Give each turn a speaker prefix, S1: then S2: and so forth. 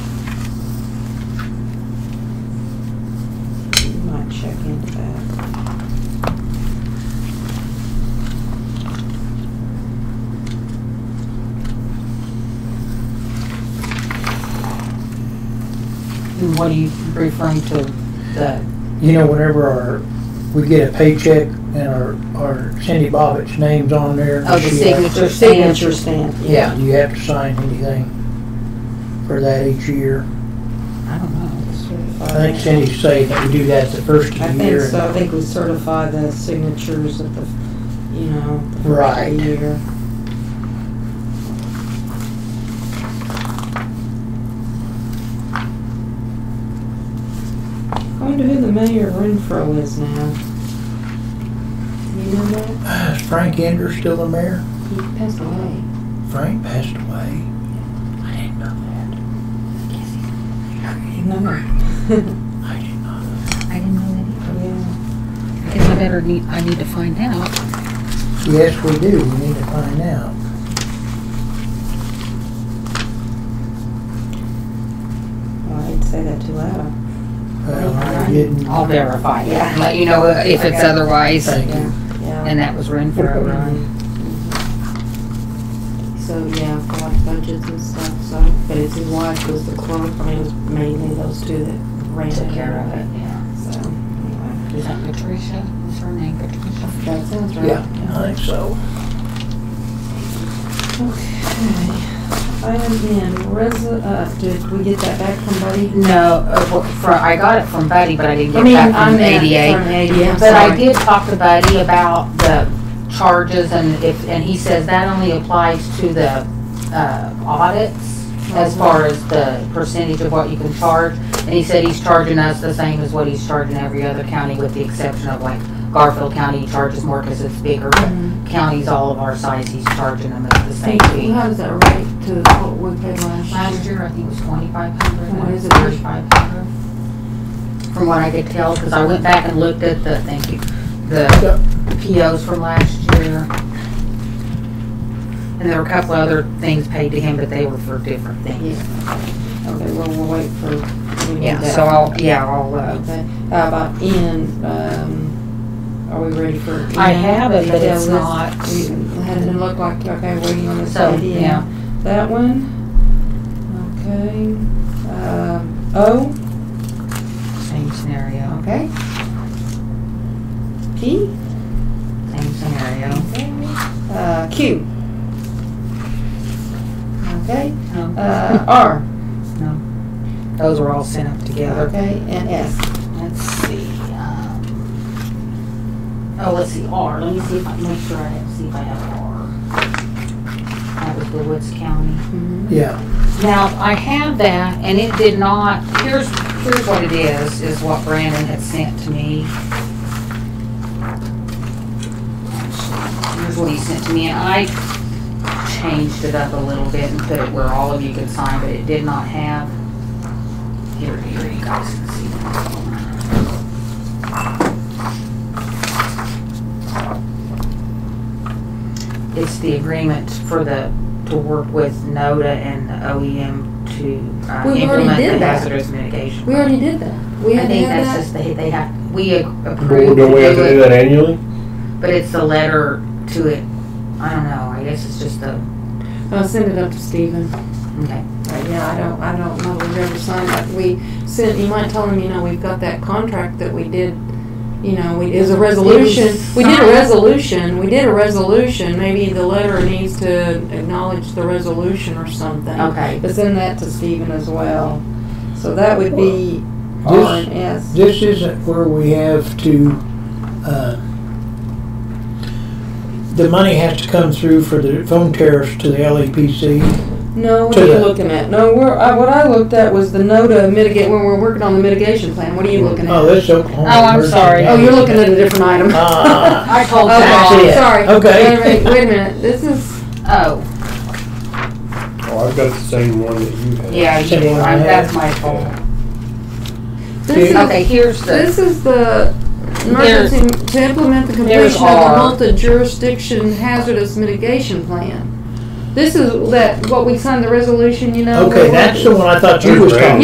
S1: looking at that.
S2: And what are you referring to, the,
S3: You know, whenever our, we get a paycheck and our, our Cindy Bobbitt's name's on there.
S2: oh, the
S3: she-
S2: signature
S1: Signature
S2: stamp?
S1: stamp.
S3: Yeah, do you have to sign anything for that each year?
S2: I don't know.
S3: I think Cindy's saying that we do that the first of
S1: I
S3: the
S1: think
S3: year.
S1: so, I think we certify the signatures at the, you know, the first of
S3: Right.
S1: the year. I wonder who the mayor of Renfro is now. You know that?
S3: Is uh, Frank Ender still the mayor?
S4: He passed away.
S3: Frank passed away. I didn't know that.
S1: No.
S3: I didn't know that.
S4: I didn't know
S1: Oh, Yeah.
S4: that. Guess I better need, I need to find out.
S3: Yes, we do. We need to find out.
S1: Well, I'd say that too loud.
S3: Well, I didn't.
S4: I'll verify it,
S1: Yeah.
S4: and let you know if it's otherwise,
S3: Thank you.
S1: Yeah.
S4: and that was Renfro, right?
S1: So, yeah, for like budgets and stuff, so, but it's his wife was the clerk, I mean, it was mainly those two that ran
S4: Took care of it, yeah.
S1: So, anyway,
S4: Is that Patricia? Is her name Patricia?
S1: that sounds right.
S3: Yeah, I think so.
S1: Okay. Item N, res, uh, did we get that back from Buddy?
S4: No, uh, well, for, I got it from Buddy, but I didn't
S1: I
S4: get
S1: mean,
S4: that from
S1: I'm
S4: ADA.
S1: From ADA, I'm
S4: But I
S1: sorry.
S4: did talk to Buddy about the charges and if, and he says that only applies to the, uh, audits as far as the percentage of what you can charge. And he said he's charging us the same as what he's charging every other county with the exception of like Garfield County charges more because it's bigger. but
S1: Mhm.
S4: Counties all of our size, he's charging them at the same
S1: Hey,
S4: fee.
S1: How does that relate to what we paid last
S4: Last
S1: year?
S4: year, I think it was twenty-five hundred.
S1: What is it?
S4: Thirty-five hundred. From what I could tell, because I went back and looked at the, thank you, the POs from last year. And there were a couple other things paid to him, but they were for different things.
S1: Yeah. Okay, well, we'll wait for, we need
S4: Yeah,
S1: that.
S4: so I'll, yeah, I'll, uh,
S1: Okay, how about N, um, are we ready for? N?
S4: I have it, but
S1: Yeah,
S4: it's
S1: let's-
S4: not.
S1: We hadn't looked like, okay, waiting on this
S4: So,
S1: idea.
S4: yeah,
S1: That one, okay, um, O,
S4: same scenario,
S1: okay. P,
S4: same scenario.
S1: okay, uh, Q. Okay,
S4: Um,
S1: uh,
S4: No,
S1: R,
S4: Those were all sent up together.
S1: okay, and S.
S4: Let's see. um, Oh, let's see, R, let me see if I, make sure I have, see if I have R. That was the Woods County.
S1: Mm-hmm.
S3: Yeah,
S4: Now, I have that, and it did not, here's, here's what it is, is what Brandon had sent to me. Here's what he sent to me, and I changed it up a little bit and put it where all of you could sign, but it did not have. Here, here, you guys can see. that. It's the agreement for the to work with NODA and the OEM to uh,
S1: We already
S4: implement the
S1: did that.
S4: hazardous mitigation.
S1: We already did that. We had
S4: I
S1: to
S4: think
S1: have
S4: that's
S1: that.
S4: just, they, they have, we
S5: But
S4: approved to
S5: Don't we have to do
S4: do it,
S5: that annually?
S4: but it's the letter to it, I don't know, I guess it's just the,
S1: I'll send it up to Stephen.
S4: okay.
S1: Right, yeah, I don't, I don't know, we've ever signed that, we sent, you might tell them, you know, we've got that contract that we did, you know, we, is a resolution, we did a resolution, we did a resolution, maybe the letter needs to acknowledge the resolution or something.
S4: Okay.
S1: But send that to Stephen as well, so that would be R and S.
S3: this isn't where we have to, uh, the money has to come through for the phone tariffs to the LEPC.
S1: No, what
S3: To
S1: are you
S3: the-
S1: looking at? No, we're, I, what I looked at was the NODA mitigate, when we're working on the mitigation plan, what are you looking
S3: Oh,
S1: at?
S3: that's Oklahoma.
S4: Oh, I'm
S3: Emergency
S4: sorry.
S1: Oh, you're looking at a different item. Oh,
S3: Ah.
S4: I told
S1: Okay,
S3: that's it.
S1: Sorry.
S3: Okay.
S1: Wait a minute, wait a minute, this is.
S4: Oh,
S5: Oh, I've got the same one that you have.
S4: yeah, you did, I- that's my fault.
S1: This is,
S4: Okay, here's the,
S1: this is the emergency to implement the
S4: there's
S1: completion
S4: our-
S1: of the multi-jurisdiction hazardous mitigation plan. This is that what we signed the resolution, you know.
S3: Okay,
S1: we're-
S3: that's the one I thought you was talking